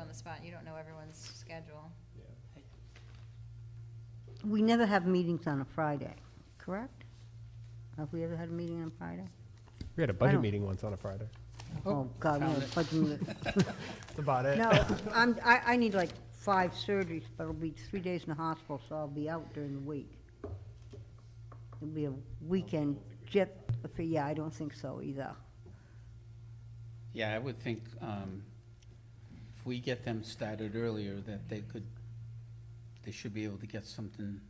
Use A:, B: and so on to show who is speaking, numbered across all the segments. A: on the spot, you don't know everyone's schedule.
B: We never have meetings on a Friday, correct? Have we ever had a meeting on Friday?
C: We had a
B: I
C: budget
B: don't-
C: meeting once on a Friday.
B: Oh, God, no, budget meeting.
C: That's about it.
B: No, I'm, I, I need like five surgeries, but it'll be three days in the hospital, so I'll be out during the week. It'll be a weekend jet, for, yeah, I don't think so either.
D: Yeah, I would think um, if we get them started earlier, that they could, they should be able to get something.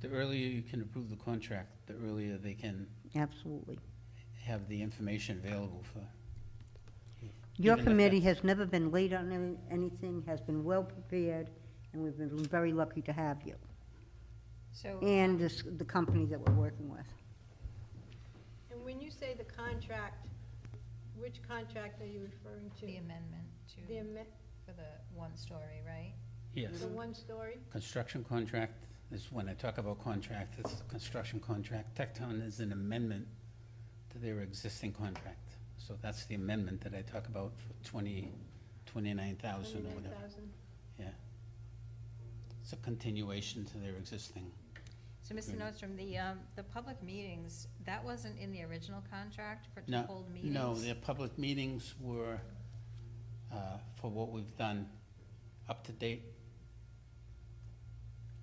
D: The earlier you can approve the contract, the earlier they can
B: Absolutely.
D: have the information available for.
B: Your
D: Even if
B: committee has never been late on any- anything, has been well-prepared, and we've been very lucky to have you,
A: So,
B: and this, the company that we're working with.
E: And when you say the contract, which contract are you referring to?
A: the amendment
E: The
A: to,
E: amme-
A: for the one story, right?
D: Yes.
E: the one story?
D: Construction contract is, when I talk about contract, it's a construction contract. Tecton is an amendment to their existing contract. So that's the amendment that I talk about for twenty, twenty-nine thousand or whatever.
E: 29,000?
D: Yeah. It's a continuation to their existing.
A: So,
D: Mm.
A: Mr. Nordstrom, the, um, the public meetings, that wasn't in the original contract for to
D: No,
A: hold meetings?
D: no, their public meetings were, uh, for what we've done, up to date,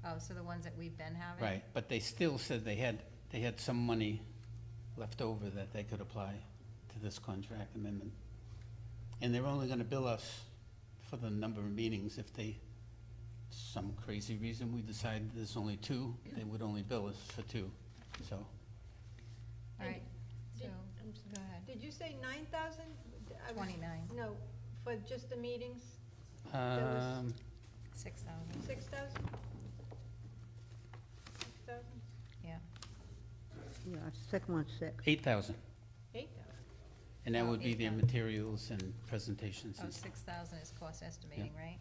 A: Oh, so the ones that we've been having?
D: right, but they still said they had, they had some money left over that they could apply to this contract amendment. And they're only gonna bill us for the number of meetings if they, some crazy reason, we decide there's only two, they would only bill us for two, so.
A: All right, so,
E: Did- I'm sorry.
A: go ahead.
E: Did you say 9,000? I was-
A: Twenty-nine,
E: No, for just the meetings, was-
D: Um,
A: six thousand,
E: 6,000? 6,000?
A: yeah.
B: Yeah, second one's sick.
D: eight thousand,
E: 8,000?
D: and that
A: Oh,
D: would be their
A: 8,000.
D: materials and presentations
A: Oh,
D: and stuff.
A: six thousand is cost estimating, right?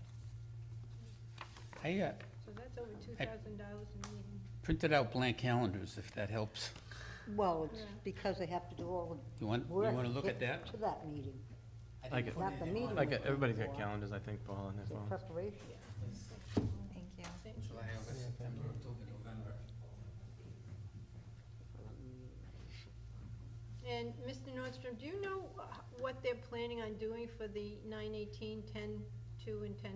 D: I uh,
E: So that's over $2,000 a meeting.
D: printed out blank calendars, if that helps.
B: Well, it's
E: Yeah.
B: because they have to do all
D: You want,
B: the
D: you
B: work.
D: want to look
B: to
D: at
B: get
D: that?
B: To that meeting,
F: Like it.
B: not the meeting.
F: Like, uh,
B: we're
F: everybody's got
B: for,
F: calendars, I think, Paul, on their
B: the
F: phone.
B: Preparation.
A: Thank you.
D: July, August, September, October, November.
E: And Mr. Nordstrom, do you know wh- what they're planning on doing for the 918, 10, 2, and 10,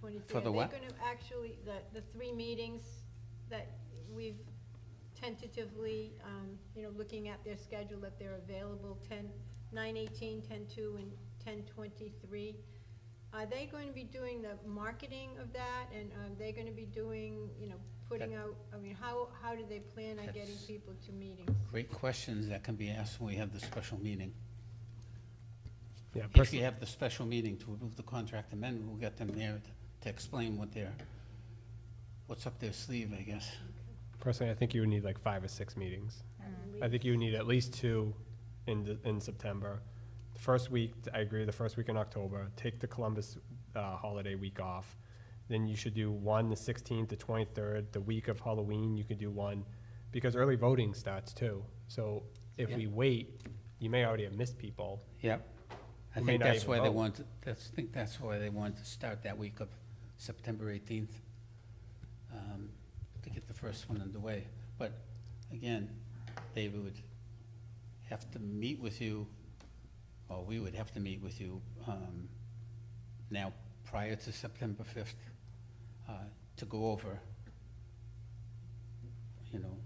E: 23?
D: For the what?
E: Are they going to actually, the, the three meetings that we've tentatively, um, you know, looking at their schedule, that they're available, 10, 918, 10, 2, and 10, 23? Are they going to be doing the marketing of that, and are they going to be doing, you know, putting out, I mean, how, how do they plan on getting
D: That's-
E: people to meetings?
D: Great questions that can be asked when we have the special meeting.
C: Yeah,
D: If you
C: personally,
D: have the special meeting to approve the contract amendment, we'll get them there to- to explain what they're, what's up their sleeve, I guess.
C: personally, I think you would need like five or six meetings.
E: We-
C: I think you would need at least two in, the- in September. The first week, I agree, the first week in October, take the Columbus, uh, holiday week off. Then you should do one the sixteenth, the twenty-third, the week of Halloween, you could do one, because early voting starts too. So if
D: Yeah.
C: we wait, you may already have missed people.
D: Yep. I
C: We may
D: think
C: not
D: that's
C: even
D: why they
C: vote.
D: want, that's, I think that's why they want to start that week of September eighteenth, um, to get the first one underway. But again, they would have to meet with you, or we would have to meet with you, um, now, prior to September fifth, uh, to go over, you know,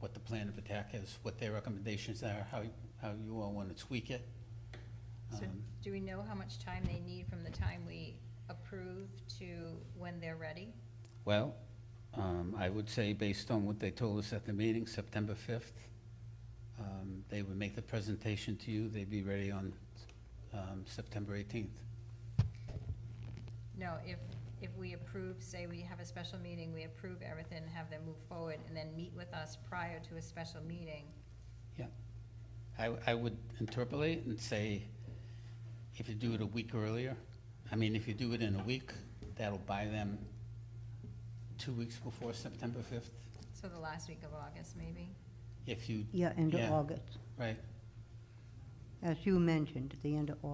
D: what the plan of attack is, what their recommendations are, how, how you all want to tweak it.
A: So
D: Um,
A: do we know how much time they need from the time we approve to when they're ready?
D: Well, um, I would say based on what they told us at the meeting, September fifth, um, they would make the presentation to you, they'd be ready on, um, September eighteenth.
A: No, if, if we approve, say we have a special meeting, we approve everything, have them move forward, and then meet with us prior to a special meeting.
D: Yeah. I, I would interpolate and say, if you do it a week earlier, I mean, if you do it in a week, that'll buy them two weeks before September fifth.
A: So the last week of August, maybe?
D: If you,
B: Yeah, end of
D: Yeah.
B: August,
D: right,
B: as you mentioned, at the end of August.